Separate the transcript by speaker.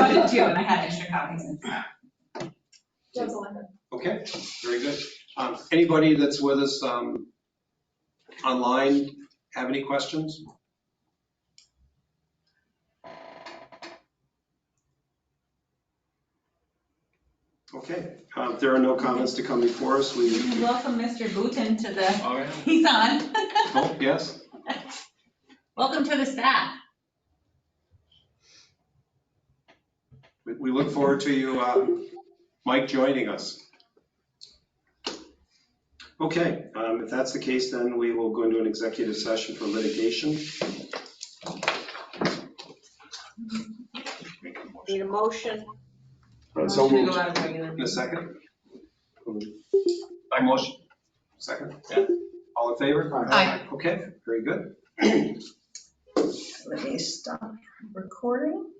Speaker 1: two, and I had extra copies. inside.
Speaker 2: That's all I have.
Speaker 3: Okay, very good. Um, Anybody that's with us um, online have any questions? Okay, uh, if there are no comments to come before us, we,
Speaker 1: We Welcome Mr. Booton to the,
Speaker 4: All right.
Speaker 1: he's on.
Speaker 3: oh, yes,
Speaker 1: Welcome to the staff.
Speaker 3: we- we look forward to you, uh, Mike, joining us. Okay, um, if that's the case, then we will go into an executive session for litigation.
Speaker 5: Need a motion?
Speaker 3: So
Speaker 1: Should we go
Speaker 3: moved.
Speaker 1: out of regular?
Speaker 3: In a second? By motion. Second?
Speaker 4: Yeah.
Speaker 3: All in favor?
Speaker 6: Aye.
Speaker 3: Okay, very good.
Speaker 5: Let me stop recording.